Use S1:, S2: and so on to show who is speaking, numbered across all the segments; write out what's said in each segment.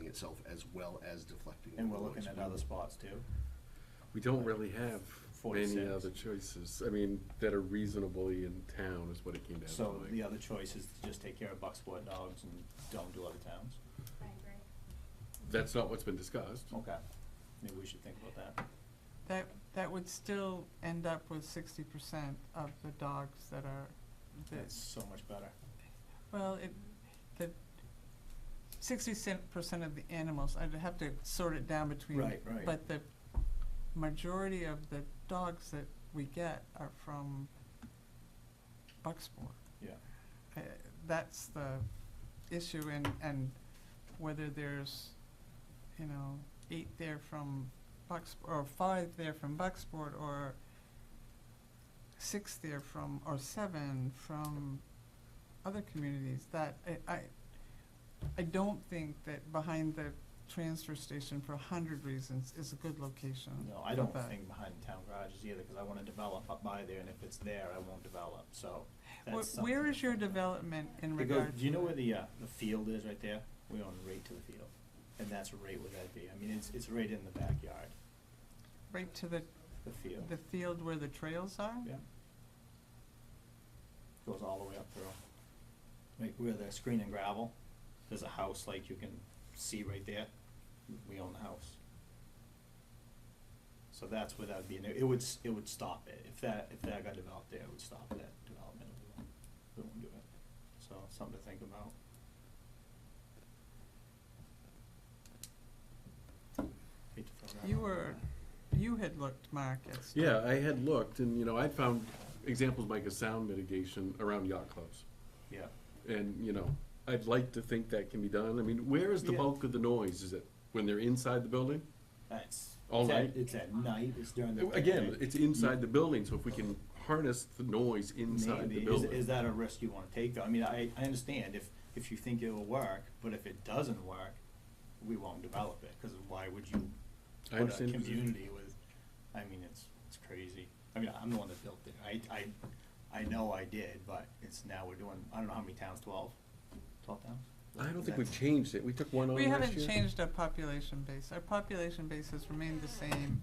S1: itself as well as deflecting.
S2: And
S1: the
S2: we're looking
S1: noise.
S2: at other spots too.
S3: We don't really have many
S2: 46.
S3: other choices, I mean, that are reasonably in town is what it came down to.
S2: So
S3: like.
S2: the other choice is to just take care of Bucksport dogs and don't do other towns.
S4: I agree.
S3: That's not what's been discussed.
S2: Okay, maybe we should think about that.
S5: That, that would still end up with sixty percent of the dogs that are,
S2: That's
S5: that,
S2: so much better.
S5: well, it, the sixty percent of the animals, I'd have to sort it down between.
S2: Right, right.
S5: But the majority of the dogs that we get are from Bucksport.
S2: Yeah.
S5: Uh, That's the issue and, and whether there's, you know, eight there from Bucksport, or five there from Bucksport, or six there from, or seven from other communities, that, I, I, I don't think that behind the transfer station for a hundred reasons is a good location.
S2: No, I
S5: for
S2: don't
S5: that.
S2: think behind town garages either, because I wanna develop up by there, and if it's there, I won't develop, so
S5: Wh-
S2: that's something.
S5: Where is your
S2: to think about.
S5: development in
S2: It goes,
S5: regard?
S2: do you
S5: to
S2: know
S5: that?
S2: where the, uh, the field is right there? We own right to the field, and that's right where that'd be. I mean, it's, it's right in the backyard,
S5: Right to the,
S2: the field.
S5: the field where the trails are?
S2: Yeah. Goes all the way up through. Like where the screen and gravel, there's a house like you can see right there. We own the house. So that's where that'd be, and it would, s- it would stop it. If that, if that got developed there, it would stop that development. We won't- We won't do it. So something to think about. Hate to throw that
S5: You
S2: out there.
S5: were, you had looked, Mark, at stuff.
S3: Yeah, I had looked and, you know, I found examples like a sound mitigation around yacht clubs.
S2: Yeah.
S3: And, you know, I'd like to think that can be done. I mean, where is the
S2: Yeah.
S3: bulk of the noise? Is it when they're inside the building?
S2: That's
S3: All
S2: it's
S3: night?
S2: At, it's at night. It's during the
S3: Again,
S2: day.
S3: it's inside the building, so if we can harness the noise inside
S2: Maybe.
S3: the
S2: Is,
S3: building.
S2: is that a risk you want to take? Though I mean, I, I understand if if you think it will work, but if it doesn't work, we won't develop it because why would you
S3: I
S2: put a
S3: understand.
S2: community with? I mean, it's it's crazy. I mean, I'm the one that built it. I I I know I did, but it's now we're doing. I don't know how many towns. Twelve. Twelve towns.
S3: I don't think
S2: That's-
S3: we've changed it. We took one on last
S5: We
S3: year.
S5: haven't changed our population base. Our population base has remained the same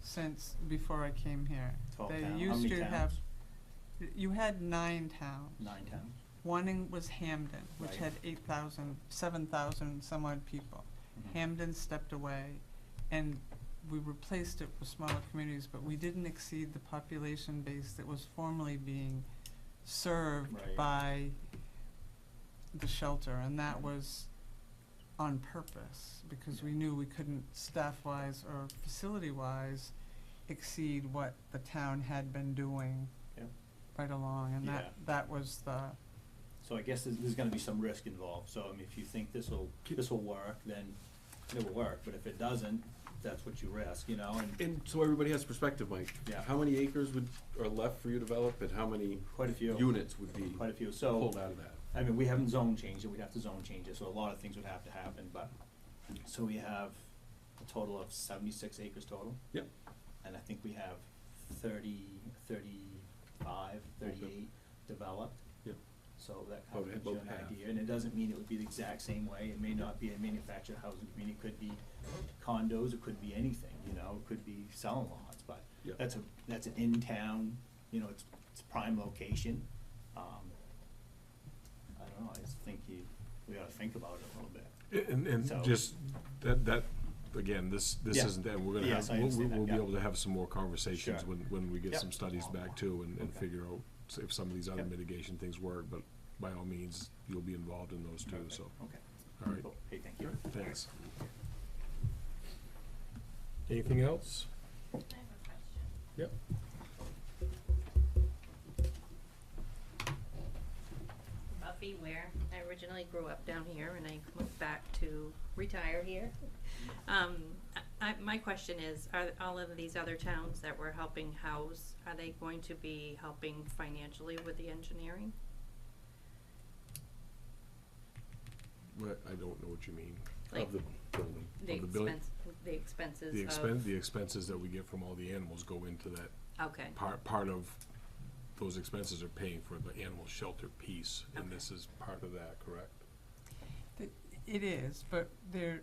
S5: since before I came here.
S2: Twelve
S5: They
S2: towns. How
S5: used
S2: many
S5: to
S2: towns?
S5: have- You had nine towns.
S2: Nine towns.
S5: One in, was Hamden, which
S2: Right.
S5: had eight thousand, seven thousand some odd people.
S2: Mhm.
S5: Hamden stepped away, and we replaced it with smaller communities, but we didn't exceed the population base that was formerly being served
S2: Right.
S5: by the shelter, and that
S2: Mhm.
S5: was on purpose, because we knew we couldn't staff-wise or facility-wise exceed what the town had been doing
S2: Yep.
S5: right along, and that,
S2: Yeah.
S5: that was the,
S2: So I guess there's, there's gonna be some risk involved, so I mean, if you think this'll, this'll work, then it will work, but if it doesn't, that's what you risk, you know, and
S3: And so everybody has perspective, Mike.
S2: Yeah.
S3: How many acres would, are left for you to develop and how many
S2: quite a few,
S3: units would be
S2: quite a few, so,
S3: pulled out of that?
S2: I mean, we haven't zone changed it, we'd have to zone change it, so a lot of things would have to happen, but, so we have a total of seventy-six acres total.
S3: Yep.
S2: And I think we have thirty, thirty-five, thirty-eight developed.
S3: Yep.
S2: So that
S6: Oh,
S2: kind of
S3: About-
S2: gives you
S3: about
S2: an
S3: half.
S2: idea, and it doesn't mean it would be the exact same way, it may not be a manufactured housing community, it could be condos, it could be anything, you know, it could be selling lots, but
S3: Yep.
S2: that's a, that's an in-town, you know, it's, it's prime location. Um, I don't know, I just think you, we ought to think about it a little bit.
S6: And,
S2: So-
S6: and just, that, that, again, this, this
S2: Yeah.
S6: isn't, and we're gonna
S2: Yes,
S6: have,
S2: I
S6: we'll,
S2: understand that,
S6: we'll be
S2: yeah.
S6: able to have some more conversations
S2: Sure.
S6: when, when we get
S2: Yep.
S6: some studies back too and, and
S2: Okay.
S6: figure out s- if some of these other
S2: Yep.
S6: mitigation things work, but by all means, you'll be involved in those too, so,
S2: Okay,
S6: all right,
S2: cool, hey, thank you.
S6: thanks. Anything else?
S4: I have a question.
S6: Yep.
S4: Buffy Ware. I originally grew up down here and I moved back to retire here. Um, I, I, my question is, are all of these other towns that we're helping house, are they going to be helping financially with the engineering?
S6: What, I don't know what you mean.
S4: Like
S3: Of the building.
S4: the
S6: of the building-
S4: expense, the expenses of?
S6: The expense, the expenses that we get from all the animals go into that
S4: Okay,
S6: part, part of those expenses are paying for the animal shelter piece, and
S4: Okay.
S6: this is part of that, correct?
S5: th- it is, but there,